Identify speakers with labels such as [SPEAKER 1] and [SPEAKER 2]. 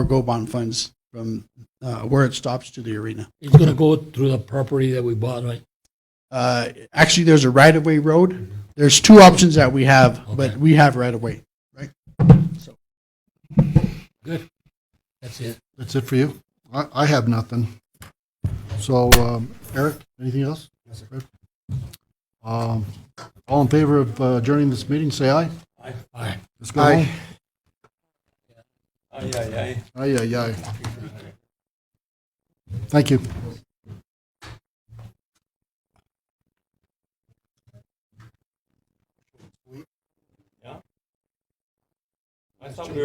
[SPEAKER 1] go bond funds from uh, where it stops to the arena.
[SPEAKER 2] It's gonna go through the property that we bought, right?
[SPEAKER 1] Uh, Actually, there's a right-of-way road. There's two options that we have, but
[SPEAKER 2] Okay.
[SPEAKER 1] we have right-of-way.
[SPEAKER 2] That's it.
[SPEAKER 3] That's it for you? I, I have nothing. So, um, Eric, anything else? Yes, sir. Um, all in favor of uh, adjourning this meeting, say aye.
[SPEAKER 2] Aye. Aye.
[SPEAKER 3] Let's go
[SPEAKER 1] Aye.
[SPEAKER 3] home. Aye, aye, aye. Thank you.
[SPEAKER 4] I thought we